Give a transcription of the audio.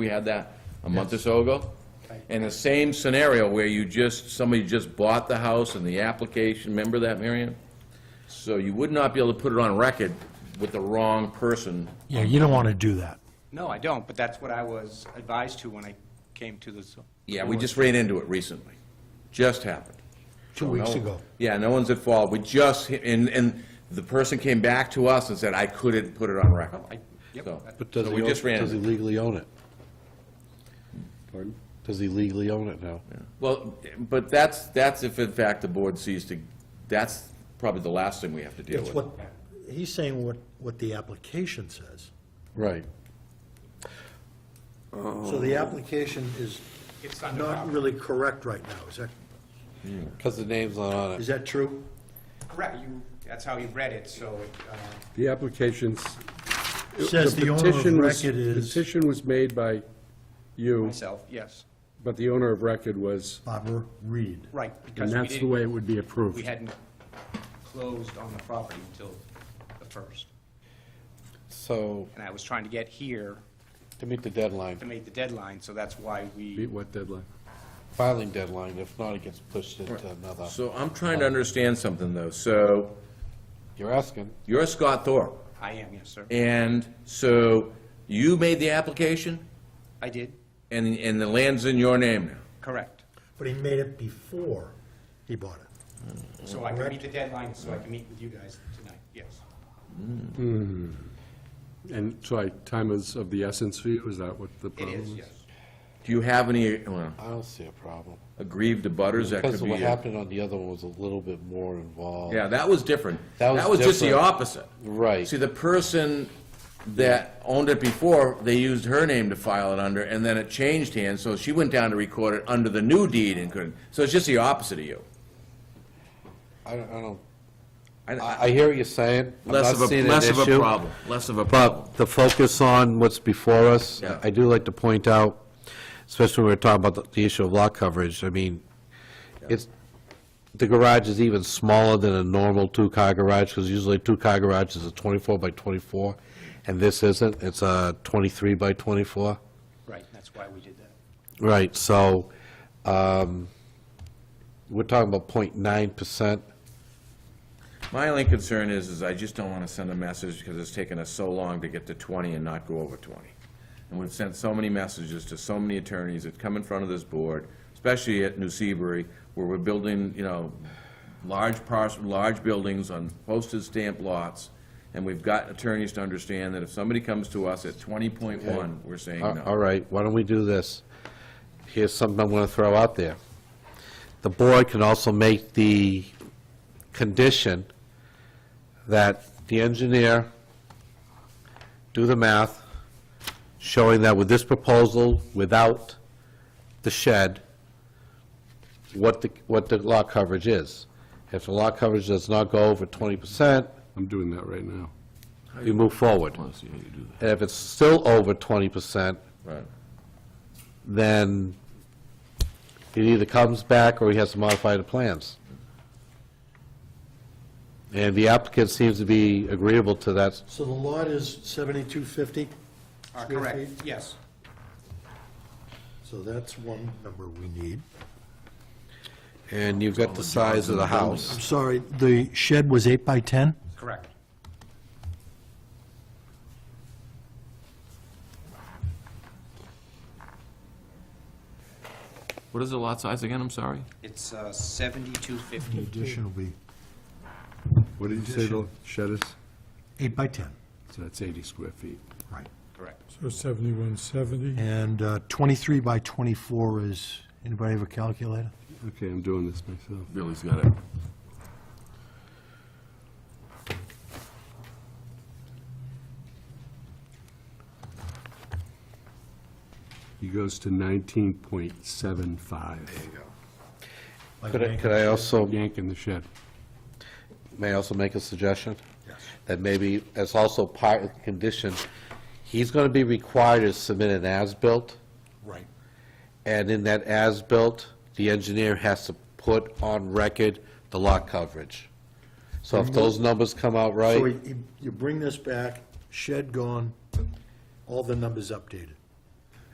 We had that a month or so ago. And the same scenario where you just, somebody just bought the house and the application, remember that, Marion? So you would not be able to put it on record with the wrong person. Yeah, you don't want to do that. No, I don't, but that's what I was advised to when I came to this. Yeah, we just ran into it recently. Just happened. Two weeks No- ago. Yeah, no one's at fault. We just, and, and the person came back to us and said, I couldn't put it on record. Oh, I- yep. So- But does so he, we own- just ran does he into it. legally own it? Pardon? Does he legally own it now? Well, but that's, that's if in fact the board sees to, that's probably the last thing we have to deal It's with. what, he's saying what, what the application says. Right. So the application is It's under not property. really correct right now, is that, Because the name's not on is it. that true? Correct, you, that's how you read it, so, uh, The application's... Says the owner of petition was- record is- Petition was made by you, myself, yes, but the owner of record was, Barbara Reed. right. and because we that's the didn't- way it would be approved. We hadn't closed on the property until the first, So, and I was trying to get here to meet the deadline, to meet the deadline, so that's why we, Meet what deadline? filing deadline, if not, it gets pushed into another. So I'm trying to understand something, though. So You're asking. you're Scott Thorpe, I am, yes, sir. and so you made the application, I did, and, and the land's in your name now. correct. But he made it before he bought it. So I can meet the deadline, so I can meet with you guys tonight, yes. And so I, time is of the essence for you, is that what the It problem is? is, yes. Do you have any, well, I don't see a problem. aggrieved abutters that Because could be? what happened on the other one was a little bit more involved. Yeah, that was different. That was That was just the different. opposite. Right. See, the person that owned it before, they used her name to file it under, and then it changed hands, so she went down to record it under the new deed and couldn't. So it's just the opposite of you. I don't, I don't, I- I, I hear what you're saying. I'm Less not of a, seeing an less of a issue. problem, less of a problem. But the focus on what's before us, Yeah. I do like to point out, especially when we we're talking about the- the issue of lot coverage, I mean, it's, the garage is even smaller than a normal two-car garage, because usually a two-car garage is a 24 by 24, and this isn't, it's a 23 by 24. Right, that's why we did that. Right, so, um, we're talking about 0.9%. My only concern is, is I just don't want to send a message because it's taken us so long to get to 20 and not go over 20. And we've sent so many messages to so many attorneys that come in front of this board, especially at New Seabury, where we're building, you know, large parcel, large buildings on postage stamp lots, and we've got attorneys to understand that if somebody comes to us at 20.1, we're saying All- Uh, All no. right, why don't we do this? Here's something I'm going to throw out there. The board can also make the condition that the engineer do the math, showing that with this proposal, without the shed, what the, what the lot coverage is. If the lot coverage does not go over 20%, I'm doing that right now. we move forward. Let's see how you do And if it's still over 20%, that. Right. then it either comes back or he has to modify the plans. And the applicant seems to be agreeable to that. So the lot is 7250? Are Square correct, feet? yes. So that's one number we need. And you've got the size of the house. I'm sorry, the shed was eight by 10? Correct. What is the lot size again, I'm sorry? It's uh, 7250. Addition will be What did you say the shed is? eight by 10, So that's 80 square feet. right. Correct. So 7170, And uh, 23 by 24 is, anybody have a calculator? Okay, I'm doing this myself. Billy's got it. He goes to 19.75. There you Like Could I, an could I also, Yank in the shed. may I also make a suggestion? That maybe, as also part of the condition, he's going to be required to submit an as-built. Right. And in that as-built, the engineer has to put on record the lot coverage. So if those numbers come out right. So you you bring this back, shed gone, all the numbers updated.